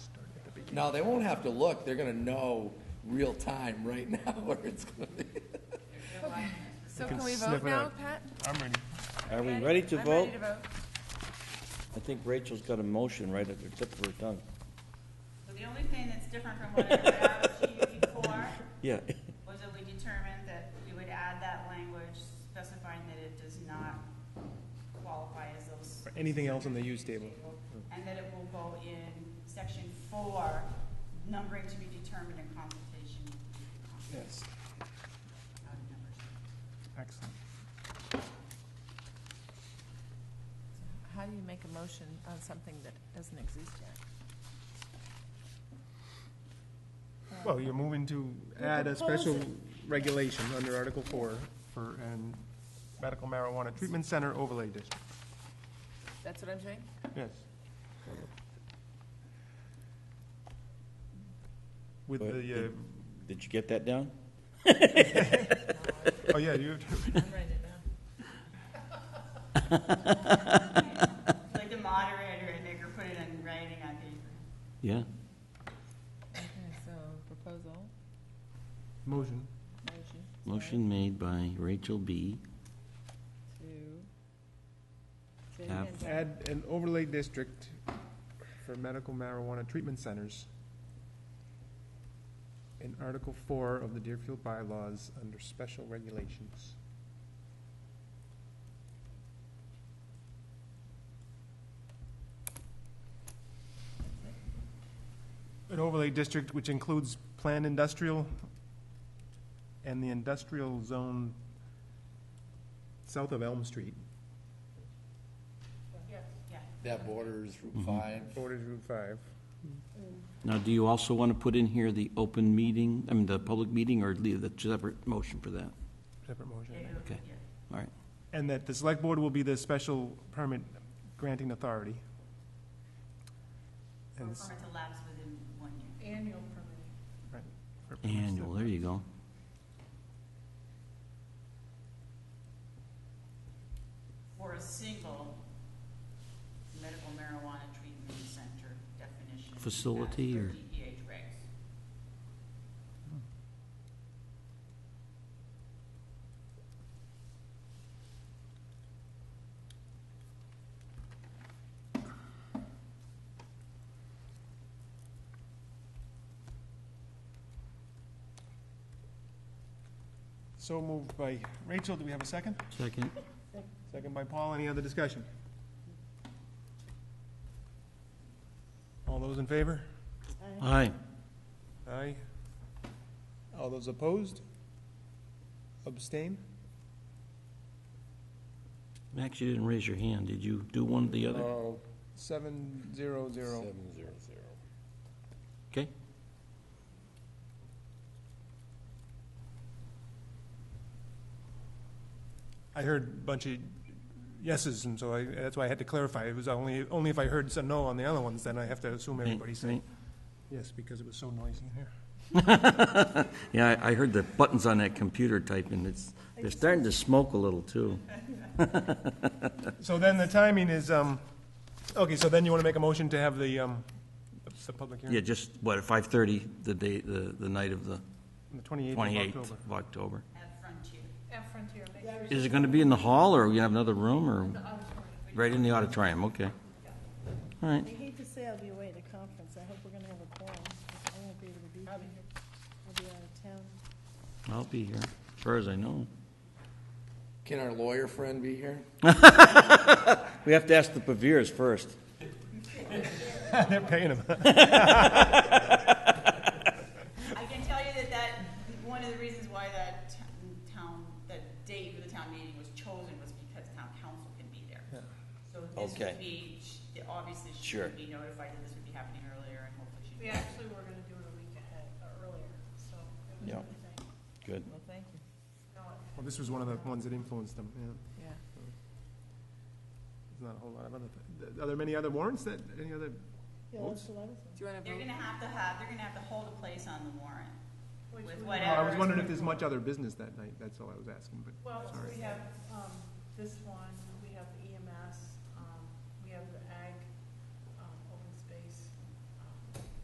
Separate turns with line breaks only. No, they won't have to look, they're gonna know real time right now where it's gonna be.
So
can
can we
sniff
vote
it
now,
out.
Pat?
I'm ready.
Are we ready to
I'm
vote?
ready to vote.
I think Rachel's got a motion right at the tip of her tongue.
So the only thing that's different from what I read out to you before
Yeah,
was that we determined that we would add that language specifying that it does not qualify as those,
For anything else on the use table.
and that it will go in section four, numbering to be determined in consultation.
Yes.
out of numbers.
Excellent.
How do you make a motion on something that doesn't exist yet?
Well, you're moving to add a
propose
special
it.
regulation under Article Four for an medical marijuana treatment center overlay district.
That's what I'm doing?
Yes. With
But
the,
it- did you get that down?
uh, oh, yeah, you,
I'm writing it down.
Like the moderator and make her put it in writing on paper.
Yeah.
Okay, so proposal,
motion.
motion. sorry,
Motion made by Rachel B.
To. say it
Have-
again, Jack.
Add an overlay district for medical marijuana treatment centers in Article Four of the Deerfield bylaws under special regulations. An overlay district which includes planned industrial and the industrial zone south of Elm Street.
Yeah.
That borders Route Five.
Borders Route Five.
Now, do you also want to put in here the open meeting, I mean, the public meeting, or leave the separate motion for that?
Separate motion.
It will-
Okay.
yeah.
All right.
And that the select board will be the special permit granting authority.
For a
And s-
permit to lapse within one year.
Annual permit.
right, for permits that-
Annual, there you go.
for a single medical marijuana treatment center definition.
Facility
as per
or-
DEH regs.
So moved by Rachel, do we have a second?
Second?
Second by Paul, any other discussion? All those in favor?
Aye.
Aye. All those opposed? Abstain?
Max, you didn't raise your hand. Did you do one or the other?
Oh, seven, zero, zero.
zero zero.
Okay.
I heard a bunch of yeses, and so I, that's why I had to clarify. It was only, only if I heard some no on the other ones, then I have to assume everybody said
Right.
Yes, because it was so noisy in here.
Yeah, I I heard the buttons on that computer typing. It's, they're starting to smoke a little, too.
So then the timing is, um, okay, so then you want to make a motion to have the, um, the public hearing?
Yeah, just, what, at 5:30, the day, the, the night of the
On The twenty-eighth
28th
of October.
of October?
At Frontier.
At Frontier, make sure
Is it going to be in the hall, or we have another room,
the
or,
auditorium.
right in the auditorium, okay. All right,
I hate to say I'll be away at a conference, I hope we're gonna have a quorum, 'cause I won't be able to be here. I'll be out of town.
I'll be here, as far as I know.
Can our lawyer friend be here?
We have to ask the Pavirs first.
They're paying them.
I can tell you that that, one of the reasons why that t- town, that date for the town meeting was chosen was because town council can be there. So this
Okay.
would be, sh- obviously she
Sure.
would be notified that this would be happening earlier and hopefully she.
We actually were gonna do it a week ahead, or Uh, earlier, so. it was
Yeah.
everything.
Good.
Well, thank you,
No, it-
Well, this was one of the ones that influenced them, yeah.
yeah.
There's not a whole lot of other, th- are there many other warrants that, any other?
Yeah, that's what I was
Do you want to
They're
vote?
gonna have to have, they're gonna have to hold a place on the warrant.
which
With
we-
Oh,
whatever.
I was wondering if there's much other business that night, that's all I was asking, but,
Well,
sorry.
we have, E um, this one, we have the um, EMS, um, we have the um,